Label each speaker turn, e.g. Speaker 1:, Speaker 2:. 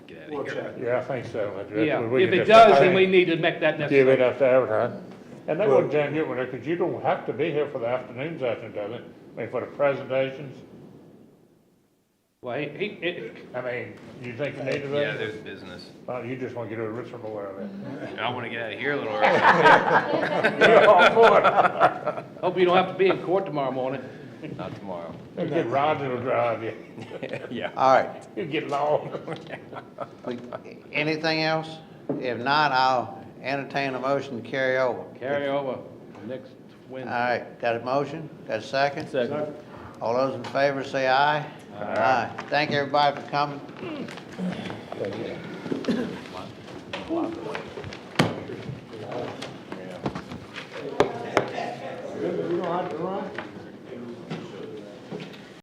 Speaker 1: think.
Speaker 2: We'll check.
Speaker 3: Yeah, I think so. That's- that's
Speaker 1: Yeah,
Speaker 3: what we
Speaker 1: if
Speaker 3: can
Speaker 1: it
Speaker 3: just- I
Speaker 1: does, then
Speaker 3: think-
Speaker 1: we need to make that
Speaker 3: Give it
Speaker 1: necessary.
Speaker 3: up to advertise. And they
Speaker 2: Well-
Speaker 3: wouldn't jam you with it, because you don't have to be here for the afternoon session, does it? I mean, for the presentations,
Speaker 1: Well, he, he, it-
Speaker 3: I mean, you think you need to
Speaker 4: Yeah,
Speaker 3: do it?
Speaker 4: there's business.
Speaker 3: Well, you just want to get a ritual aware of
Speaker 1: Mm-hmm.
Speaker 3: it.
Speaker 4: And I want to get out of here a little early.
Speaker 3: You're all for it.
Speaker 1: hope you don't have to be in court tomorrow morning.
Speaker 4: Not tomorrow.
Speaker 3: You get Roger to drive you,
Speaker 4: Yeah.
Speaker 5: All right,
Speaker 3: you get long.
Speaker 5: we- anything else? If not, I'll entertain a motion to carry over.
Speaker 1: Carry over next
Speaker 5: All
Speaker 1: Wednesday.
Speaker 5: right, got a motion, got a second? Second. All those in favor say aye. Aye. Thank everybody for coming.
Speaker 2: You don't have to run?